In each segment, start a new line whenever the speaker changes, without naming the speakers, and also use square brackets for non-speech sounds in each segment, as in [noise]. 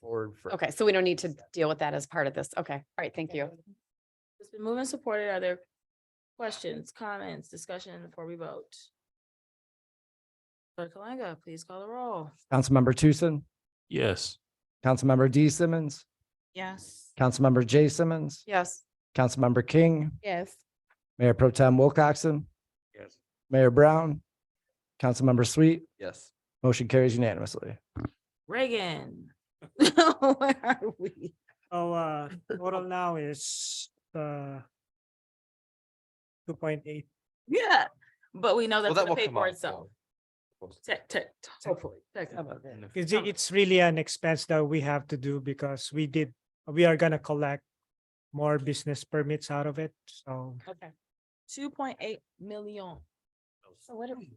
for. for-
Okay, so we don't need to deal with that as part of this. Okay, all right, thank you.
It's been moved and supported. Are there questions, comments, discussion before we vote? Clerk Kalanga, please call the roll.
Councilmember Tucson,
Yes.
Councilmember D Simmons,
Yes.
Councilmember J Simmons,
Yes.
Councilmember King,
Yes.
Mayor Pro Tem Wilcoxen,
Yes.
Mayor Brown, Councilmember Sweet,
Yes.
motion carries unanimously.
[laughs]
Reagan. [laughs] Where are we?
Oh, uh, total now is, uh, two point eight,
Yeah, but we know
Well,
that's
that
gonna
will
pay
come
for
out.
itself.
so-
Tech, tech, hopefully. tech-
in the-
it's, it's really an expense that we have to do because we did, we are gonna collect more business permits out of it, so.
Okay. Two point eight million. So what do we?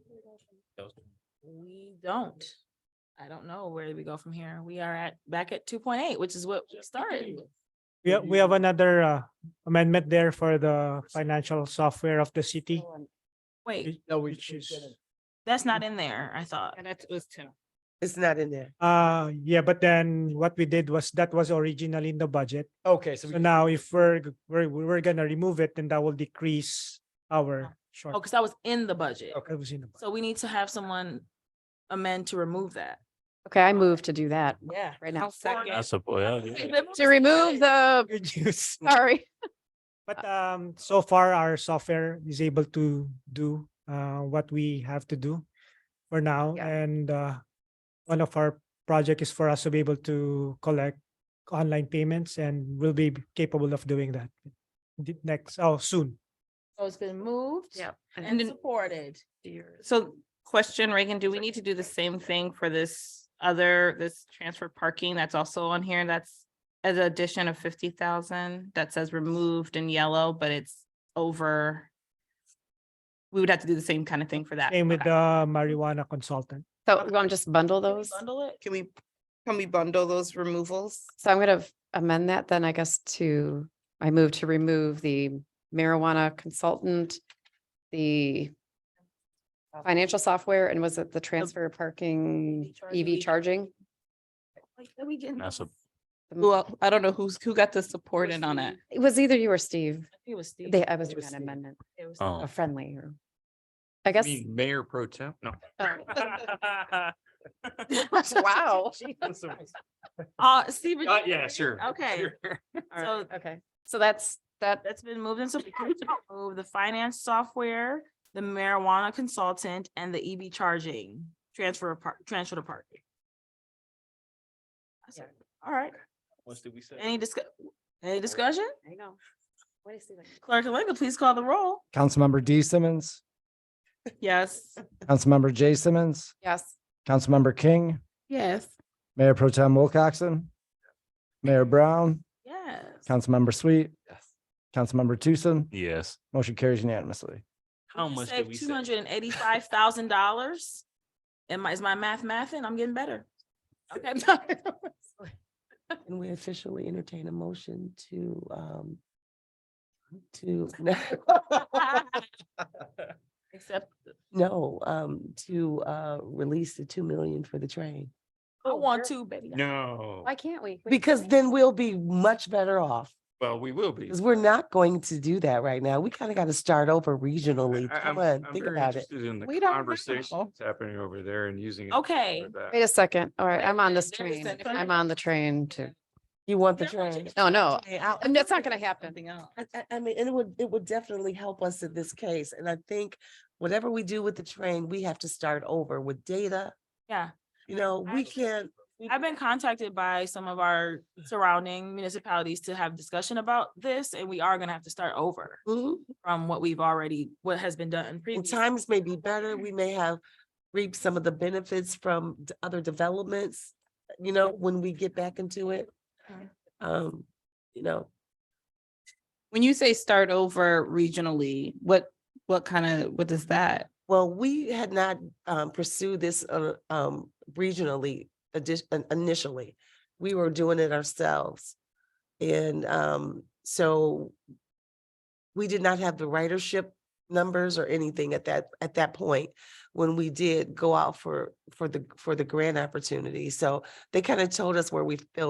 We don't. I don't know where we go from here. We are at, back at two point eight, which is what we started. with.
We, ha- we have another, uh, amendment there for the financial software of the city,
Oh, Wait,
which- which is,
that's not in there, I thought.
And that was Tim.
It's not in there.
uh, yeah, but then what we did was, that was originally in the budget.
Okay,
So now if we're, g- we're, we're gonna remove it, then that will decrease our short.
Oh, because that was in the budget.
It was in the budget.
So we need to have someone amend to remove that.
Okay, I move to do that
Yeah.
right now.
That's
That's a boy. yeah, yeah.
To remove the,
Good news.
sorry,
But um, so far our software is able to do uh, what we have to do for now.
Yeah.
And uh, one of our project is for us to be able to collect online payments and we'll be capable of doing that the next, oh, soon.
So it's been moved.
Yep.
And
And
supported.
so question, Reagan, do we need to do the same thing for this other, this transfer parking that's also on here? That's as an addition of fifty thousand that says removed in yellow, but it's over. We would have to do the same kind of thing for that.
Same with
Okay.
the marijuana consultant.
so you want to just bundle
Can we
those?
Bundle it.
Can we, can we bundle those removals?
So I'm gonna amend that then, I guess, to, I move to remove the marijuana consultant, the financial software, and was it Oh. the transfer parking, EV
charging.
charging?
Like, are we getting
That's a-
this?
Well, I don't know who's, who got the support in on it.
It was either you or Steve.
I think It was Steve.
They, I was
It
doing an
Steve.
amendment,
It was-
Oh.
a friendly or, I guess.
mean Mayor Pro Tem? No.
oh,
[laughs]
[laughs]
Wow.
Uh, Steve. would you
Uh,
like
yeah,
to-
sure.
Okay,
Sure.
so
Okay, so that's, that,
that's been moved and supported to remove the finance software, the marijuana consultant and the EV charging transfer apart, transfer to park. I said, All right,
What did we say?
any discuss, any discussion?
I know. What is he [laughs] like?
Clerk Kalanga, please call the [laughs] roll.
Councilmember D Simmons,
Yes.
Councilmember J Simmons,
Yes.
Councilmember King,
Yes.
Mayor Pro Tem Wilcoxen, Mayor Brown,
Yes.
Councilmember Sweet,
Yes.
Councilmember Tucson,
Yes.
motion carries unanimously.
How much did we
Two hundred
save?
and eighty-five thousand dollars. Am I, is my math mathing? I'm getting [laughs] better.
[laughs]
Okay.
Can we officially entertain a motion to, um, to, [laughs]
Except
no, um, to, uh, release the two million for the train?
I want to, baby.
No,
Why can't we? We-
Because then we'll be much better off,
well, we will be.
because we're not going to do that right now. We kind of got to start over regionally.
I-
Come
I'm-
on,
I'm
think
very
about it.
interested In
We
the
don't know.
conversation happening over there and using. it
Okay.
for that.
Wait a second. All right,
Wait a
I'm on
minute,
this
there's a
train.
second.
I'm on the train too.
You want the
They're going to
train?
No, Oh, no,
Hey, I'll-
and that's not gonna happen.
Something else.
I, I- I mean, and it would, it would definitely help us in this case. And I think whatever we do with the train, we have to start over with data.
Yeah.
You know, we
Absolutely.
can't. we-
I've been contacted by some of our surrounding municipalities to have discussion about this, and we are gonna have to start over
Mhm.
from what we've already, what has been done
And
previously.
times may be better. We may have reaped some of the benefits from d- other developments, you know, when we get back into it.
Mhm.
Um, you know,
When you say start over regionally, what, what kind of, what does that?
well, we had not um pursued this uh um regionally addition initially. We were doing it ourselves. And um so we did not have the ridership numbers or anything at that at that point when we did go out for for the for the grant opportunity. So they kind of told us where we filled